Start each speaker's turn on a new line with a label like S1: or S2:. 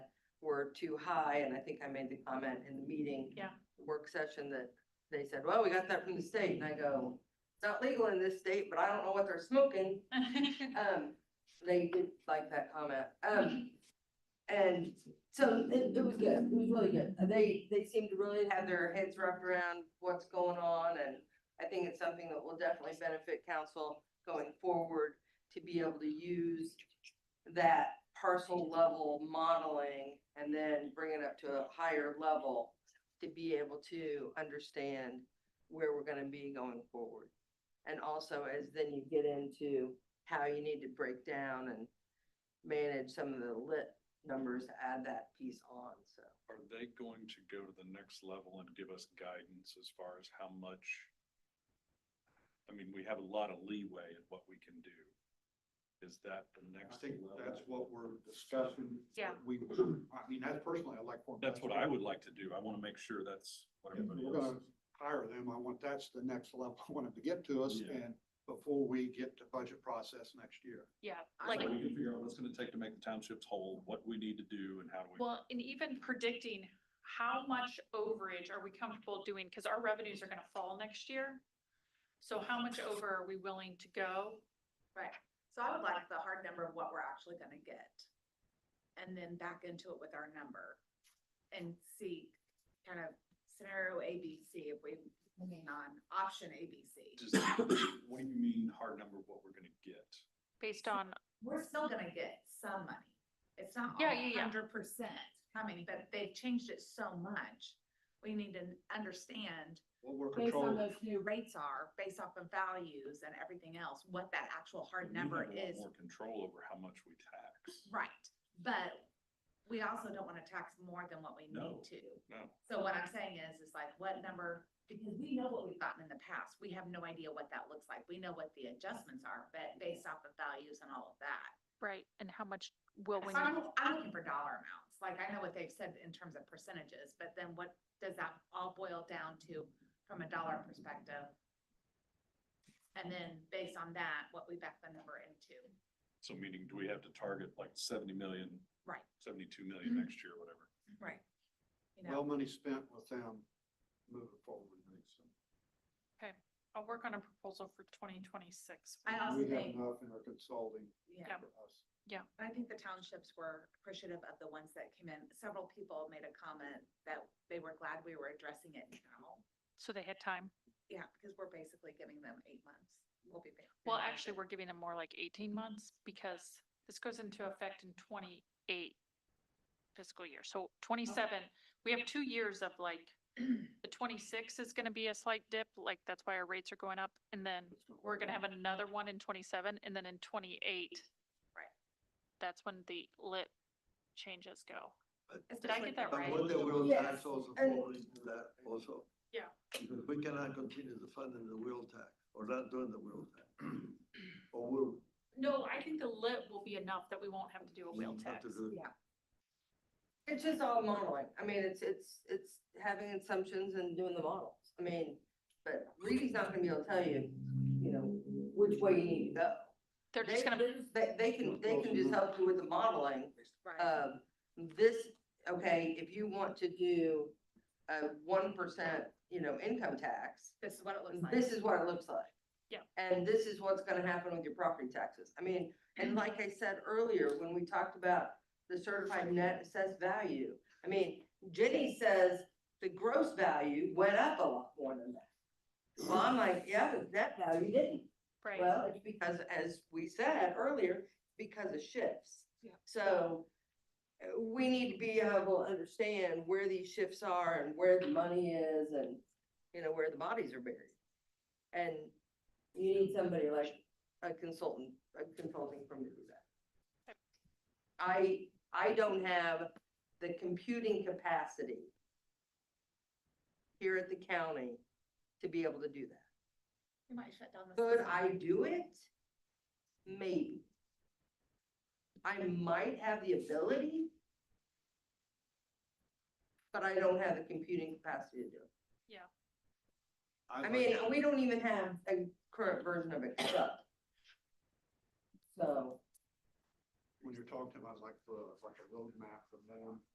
S1: were too high, and I think I made the comment in the meeting.
S2: Yeah.
S1: Work session that they said, well, we got that from the state, and I go, it's not legal in this state, but I don't know what they're smoking. Um, they did like that comment, um, and so it, it was good, it was really good. Uh, They, they seem to really have their heads wrapped around what's going on, and I think it's something that will definitely benefit council going forward to be able to use that parcel level modeling and then bring it up to a higher level to be able to understand where we're gonna be going forward. And also as then you get into how you need to break down and manage some of the lit numbers, to add that piece on, so.
S3: Are they going to go to the next level and give us guidance as far as how much? I mean, we have a lot of leeway in what we can do. Is that the
S4: I
S3: next?
S4: think that's
S3: level?
S4: what we're discussing.
S2: Yeah.
S4: We, I mean, that's personally, I like. for-
S3: That's what I would like to do. I want to make sure that's what
S4: If
S3: everybody
S4: We're gonna
S3: else.
S4: hire them. I want, that's the next level I want them to get to us
S3: Yeah.
S4: and before we get to budget process next year.
S2: Yeah,
S3: So
S2: like,
S3: we can figure out what it's going to take to make the townships whole, what we need to do and how do we.
S2: well, and even predicting how much overage are we comfortable doing, because our revenues are gonna fall next year. So how much over are we willing to go?
S5: Right, so I would like the hard number of what we're actually gonna get. And then back into it with our number and see kind of scenario A, B, C, if we, on option A, B, C.
S3: Does- What do you mean hard number, of what we're going to get?
S2: Based on,
S5: We're still gonna get some money. It's not
S2: Yeah,
S5: all
S2: yeah, yeah.
S5: hundred percent coming, but they've changed it so much. We need to understand
S4: What we're
S5: based
S4: controlling.
S5: on those new rates are, based off of values and everything else, what that actual hard
S3: We have
S5: number
S3: a lot
S5: is
S3: More control over how much we tax.
S5: Right, but we also don't wanna tax more than what we
S3: No.
S5: need to.
S3: No.
S5: So what I'm saying is, is like what number, because we know what we've gotten in the past, we have no idea what that looks like, we know what the adjustments are, but based off of values and all of that.
S2: right, and how much will we
S5: So I'm,
S2: need?
S5: I'm looking for dollar amounts, like I know what they've said in terms of percentages, but then what does that all boil down to from a dollar perspective? And then based on that, what we back the number into,
S3: So meaning, do we have to target like seventy million,
S5: right,
S3: seventy-two million next year, whatever?
S5: right. You know.
S4: Well, money spent with them moving forward.
S2: I'll work on a proposal for twenty twenty-six.
S5: I also
S4: We have
S5: think-
S4: enough in our consulting
S5: Yeah,
S2: Yeah.
S4: for us.
S5: I think the townships were appreciative of the ones that came in. Several people made a comment that they were glad we were addressing it now.
S2: So they had time.
S5: Yeah, because we're basically giving them eight months. We'll be. back.
S2: Well, actually, we're giving them more like eighteen months because this goes into effect in twenty-eight fiscal year. So twenty-seven, we have two years of like, the twenty-six is gonna be a slight dip, like that's why our rates are going up. And then we're gonna have another one in twenty-seven and then in twenty-eight.
S5: Right.
S2: That's when the lit changes go.
S5: It's
S2: Did I
S5: just
S2: get
S5: like-
S2: that
S6: But
S2: right?
S6: what they will
S1: Yes,
S6: tax also
S1: and-
S6: falls into that also.
S2: Yeah.
S6: Because we cannot continue to fund in the wheel tax, or not doing the wheel tax. Or we'll.
S2: No, I think the lit will be enough that we won't have to do a wheel
S4: Mm,
S6: we'll have
S2: tax.
S6: to do it.
S5: Yeah,
S1: It's just all modeling. I mean, it's, it's, it's having assumptions and doing the models. I mean, but Reedy's not gonna be able to tell you, you know, which way you need to go.
S2: They're just
S1: They-
S2: gonna,
S1: They, they can, they can just help you with the modeling
S5: right.
S1: um, this, okay, if you want to do a one percent, you know, income tax,
S5: This is what it looks like.
S1: this is what it looks like.
S2: Yeah.
S1: And this is what's gonna happen with your property taxes. I mean,
S5: Mm-hmm.
S1: and like I said earlier, when we talked about the certified net assessed value, I mean, Jenny says the gross value went up a lot more than that. Well, I'm like, yeah, the net value didn't.
S2: right,
S1: Well, it's because, as we said earlier, because of shifts.
S2: Yeah.
S1: So uh, we need to be able to understand where these shifts are and where the money is and, you know, where the bodies are buried. And you need somebody like a consultant, a consulting firm to do that. I, I don't have the computing capacity here at the county to be able to do that.
S5: You might shut down the.
S1: Could
S5: system.
S1: I do it? Maybe. I might have the ability. But I don't have the computing capacity to do it. I
S4: like-
S1: mean, we don't even have a current version of Excel. So,
S4: When you're talking about like the, like a roadmap from them,